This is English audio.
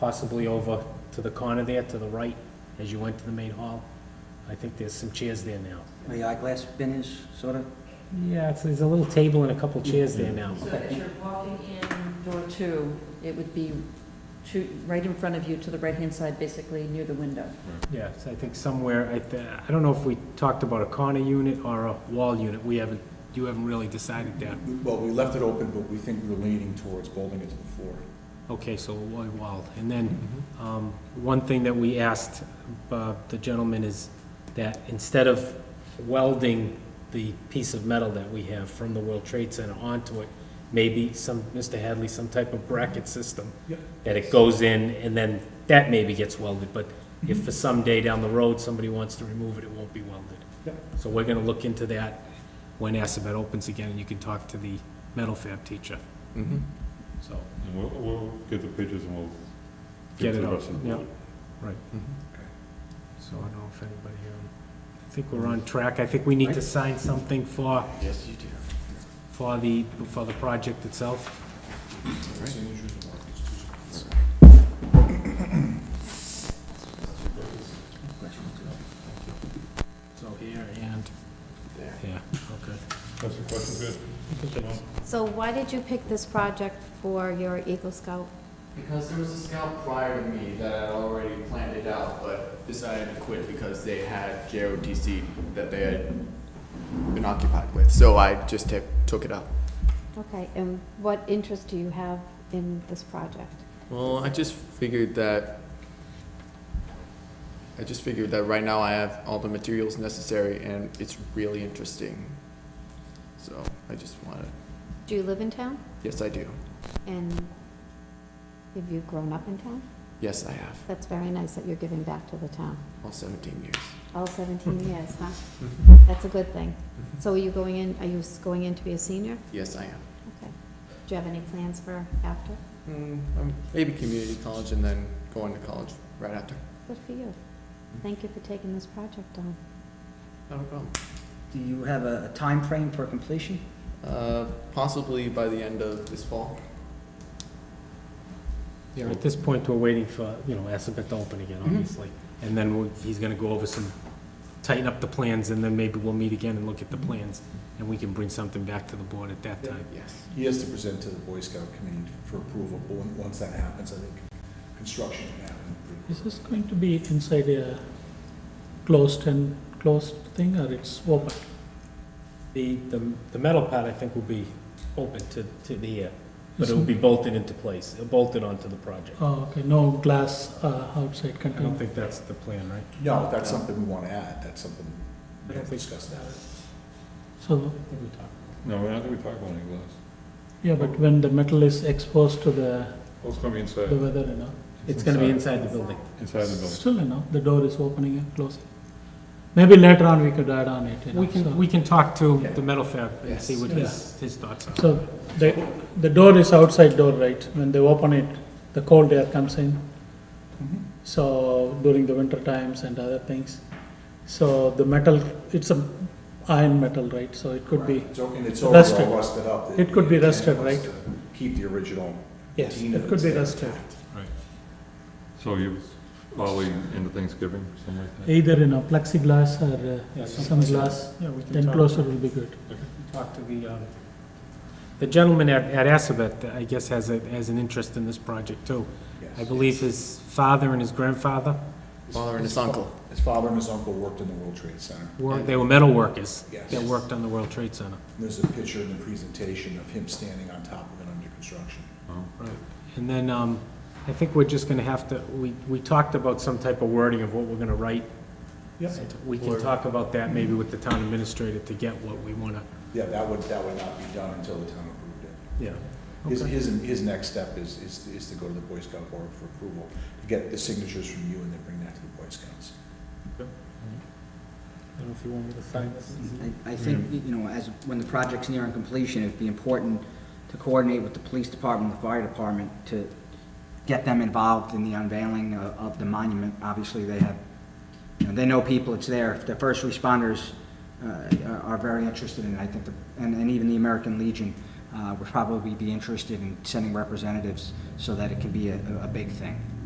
possibly over to the corner there, to the right, as you went to the main hall. I think there's some chairs there now. The eyeglass bin is sort of, Yeah, it's, there's a little table and a couple chairs there now. So as you're walking in door two, it would be to, right in front of you to the right-hand side, basically near the window. Yes, I think somewhere, I, th- I don't know if we talked about a corner unit or a wall unit. We haven't, you haven't really decided that. Well, we left it open, but we think we're leaning towards bolting it to the floor. Okay, so a wall, wall. And then, um, one thing that we asked, uh, the gentleman is that instead of welding the piece of metal that we have from the World Trade Center onto it, maybe some, Mr. Hadley, some type of bracket system. Yep. That it goes in and then that maybe gets welded, but Mm-hmm. if for some day down the road, somebody wants to remove it, it won't be welded. Yep. So we're gonna look into that when Assabet opens again and you can talk to the metal fab teacher, Mm-hmm. so. And we'll, we'll get the pictures and we'll. Get to it the out, rest of the yeah. board. Mm-hmm. So I don't know if anybody, um, I think we're on track. I think we need to sign something for, Yes, you do. for the, for the project itself. So here and. There. Yeah, okay. That's the question, good. Well, So why did you pick this project for your Eagle Scout? Because there was a scout prior to me that had already planned it out, but decided to quit because they had JOTC that they had been occupied with. So I just ta- took it up. Okay, and what interest do you have in this project? Well, I just figured that. I just figured that right now I have all the materials necessary and it's really interesting. So I just wanted, Do you live in town? yes, I do. And have you grown up in town? Yes, I have. That's very nice that you're giving back to the town. All 17 years. All 17 years, huh? That's a good thing. So are you going in, are you s- going in to be a senior? Yes, I am. Okay. Do you have any plans for after? Mm, um, maybe community college and then going to college right after. Good for you. Thank you for taking this project on. Not a problem. do you have a a time frame for completion? Uh, possibly by the end of this fall. Yeah, at this point, we're waiting for, you know, Assabet to open again, obviously. And then we'll- he's gonna go over some, tighten up the plans, and then maybe we'll meet again and look at the plans, and we can bring something back to the board at that time. Yes. He has to present to the Boy Scout community for approval, but on- once that happens, I think construction can happen. pretty quick. Is this going to be inside a closed and closed thing or it's open? The, the, the metal part, I think, will be open to, to the air, but it will be bolted into place, bolted onto the project. Oh, okay, no glass uh, outside I don't container. think that's the plan, right? No, that's something we want to add, that's something I we don't have to think- discuss that. So, I think we talked. No, we're not gonna be talking about any glass. yeah, but when the metal is exposed to the, Well, it's gonna be the inside, weather, you know, It's gonna be inside the building. inside the building. still, you know, the door is opening and closing. Maybe later on we could add on it, you know. We can, so- we can talk to the metal fab and Yes. see what Yeah. his, his thoughts are. So, the, the door is outside door, right? When they open it, the cold air comes in. Mhm. So during the winter times and other things. So the metal, it's a iron metal, right? So it could be, It's o- And it's already rusted. all rusted up. The- It could be the intent rusted, was right? to Keep the original. yes, patina it could be that's rusted. there. So you probably into Thanksgiving, something like that? Either in a plexiglass or Yeah, uh, some glass, Yeah, we can talk. enclosure will be good. Talk to the, um, the gentleman at, at Assabet, I guess, has a, has an interest in this project too. Yes. I believe his father and his grandfather Father and his uncle. His father and his uncle worked in the World Trade Center. were, they were metal workers Yes. that worked on the World Trade Center. There's a picture in the presentation of him standing on top of it under construction. Right, and then, um, I think we're just gonna have to, we, we talked about some type of wording of what we're gonna write. Yes. We can talk about that maybe with the town administrator to get what we wanna, Yeah, that would, that would not be done until the town approved it. yeah. His, his, his next step is, is, is to go to the Boy Scout Board for approval, to get the signatures from you and then bring that to the Boy Scouts. I don't know if you want me to sign this. I- I think, you know, as, when the project's nearing completion, it'd be important to coordinate with the police department, the fire department, to get them involved in the unveiling of of the monument. Obviously, they have, you know, they know people, it's there. The first responders uh, are- are very interested in it, I think, the- and and even the American Legion uh, would probably be interested in sending representatives so that it can be a a big thing.